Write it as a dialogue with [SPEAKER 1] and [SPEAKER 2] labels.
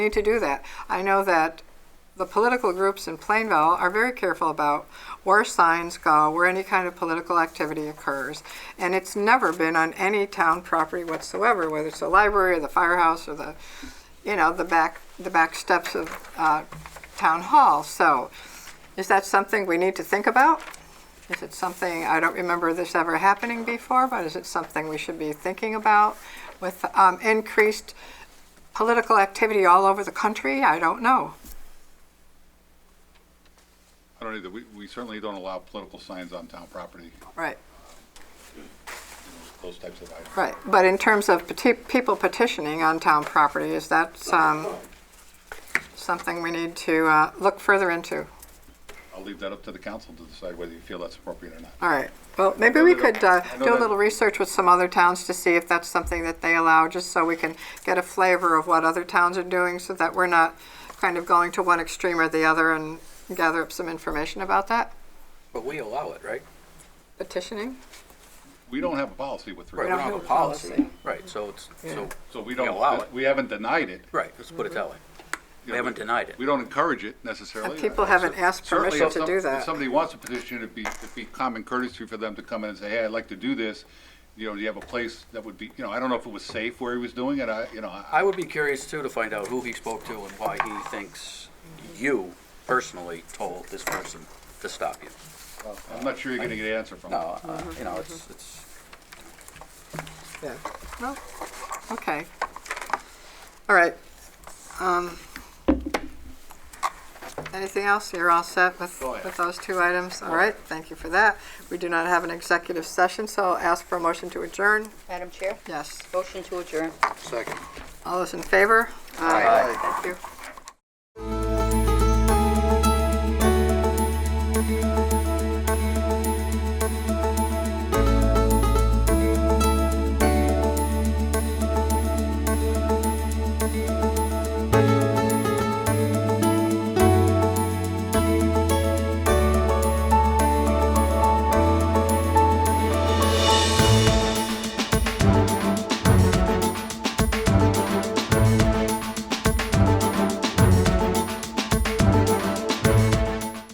[SPEAKER 1] need to do that. I know that the political groups in Plainville are very careful about where signs go, where any kind of political activity occurs. And it's never been on any town property whatsoever, whether it's the library or the firehouse or the, you know, the back, the back steps of uh, town hall. So is that something we need to think about? Is it something, I don't remember this ever happening before, but is it something we should be thinking about with um, increased political activity all over the country? I don't know.
[SPEAKER 2] I don't either. We, we certainly don't allow political signs on town property,
[SPEAKER 1] Right.
[SPEAKER 2] those types of items.
[SPEAKER 1] Right, but in terms of peti- people petitioning on town property, is that um, something we need to uh, look further into?
[SPEAKER 2] I'll leave that up to the council to decide whether you feel that's appropriate or not.
[SPEAKER 1] All right, well, maybe we
[SPEAKER 2] I know that-
[SPEAKER 1] could uh,
[SPEAKER 2] I know
[SPEAKER 1] do a
[SPEAKER 2] that-
[SPEAKER 1] little research with some other towns to see if that's something that they allow, just so we can get a flavor of what other towns are doing, so that we're not kind of going to one extreme or the other and gather up some information about that,
[SPEAKER 3] But we allow it, right?
[SPEAKER 1] petitioning.
[SPEAKER 2] We don't have a policy with
[SPEAKER 3] Right, we
[SPEAKER 2] regard,
[SPEAKER 1] don't
[SPEAKER 3] don't have a
[SPEAKER 1] have a policy.
[SPEAKER 3] policy. Right, so it's, so,
[SPEAKER 2] so we
[SPEAKER 3] We allow
[SPEAKER 2] don't,
[SPEAKER 3] it.
[SPEAKER 2] we haven't denied it.
[SPEAKER 3] right, let's put it that way.
[SPEAKER 2] You
[SPEAKER 3] We
[SPEAKER 2] know,
[SPEAKER 3] haven't denied it.
[SPEAKER 2] We don't encourage it necessarily.
[SPEAKER 1] And people haven't asked
[SPEAKER 2] Oh, Certainly,
[SPEAKER 1] permission
[SPEAKER 2] if
[SPEAKER 1] to
[SPEAKER 2] some-
[SPEAKER 1] do that.
[SPEAKER 2] If somebody wants to petition, it'd be, it'd be common courtesy for them to come in and say, hey, I'd like to do this. You know, do you have a place that would be, you know, I don't know if it was safe where he was doing it, I, you know, I,
[SPEAKER 3] I would be curious too to find out who he spoke to and why he thinks you personally told this person to stop you.
[SPEAKER 2] I'm not sure you're gonna get an answer from
[SPEAKER 3] No,
[SPEAKER 2] him.
[SPEAKER 3] uh, you know, it's, it's,
[SPEAKER 1] Yeah. No? Oh, Okay. All right. Um, Anything else? You're all set with,
[SPEAKER 2] Go ahead.
[SPEAKER 1] with those two items? All right, thank you for that. We do not have an executive session, so I'll ask for a motion to adjourn.
[SPEAKER 4] Madam Chair,
[SPEAKER 1] Yes.
[SPEAKER 4] motion to adjourn.
[SPEAKER 3] second.
[SPEAKER 1] All those in favor?
[SPEAKER 3] Aye.
[SPEAKER 1] Thank you.